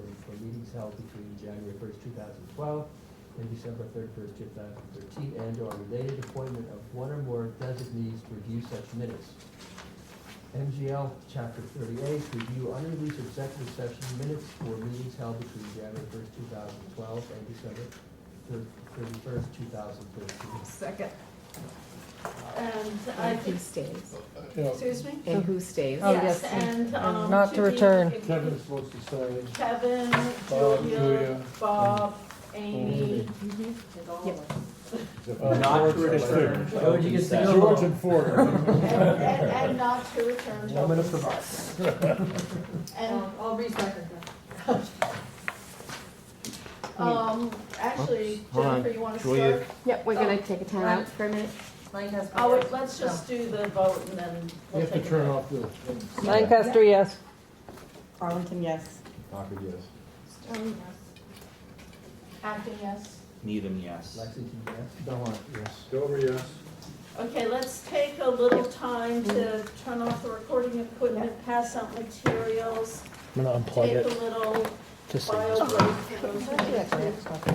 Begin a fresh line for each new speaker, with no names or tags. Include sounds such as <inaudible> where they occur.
meetings held between January first, two thousand twelve, and December thirty-first, two thousand thirteen, and/or related appointment of one or more designees to review such minutes. MGL Chapter thirty-eight, review unreleased executive session minutes for meetings held between January first, two thousand twelve, and December thirty-first, two thousand thirteen.
Second.
And I
And
think,
who stays?
Yeah,
excuse me?
And who stays?
Oh, yes,
Yes, and, um.
not to
the
return.
Kevin's supposed to say,
Kevin,
Bob,
Julia,
Julia,
Bob, Amy,
Mhm.
and all
Yep.
of us.
except
Uh,
for
Not to
George.
return.
Why would you get to go?
George and Ford.
And, and, and not to return till.
Woman of the bar.
And,
Um, I'll re-second
<laughs> um, actually,
Hold on,
Jennifer, you wanna
Julia.
start?
Yep, we're gonna take a time out for a minute.
that.
Oh, wait, let's just do the vote and then
You
we'll
have to
take a
turn
vote.
off the.
Lancaster, yes.
Arlington, yes.
Parker, yes.
Stone, yes. Um, Acting, yes.
Needham, yes.
Lexington, yes?
Belmont, yes. Dover, yes.
Okay, let's take a little time to turn off the recording equipment, pass out materials,
I'm gonna
take a little bio break for those who need to.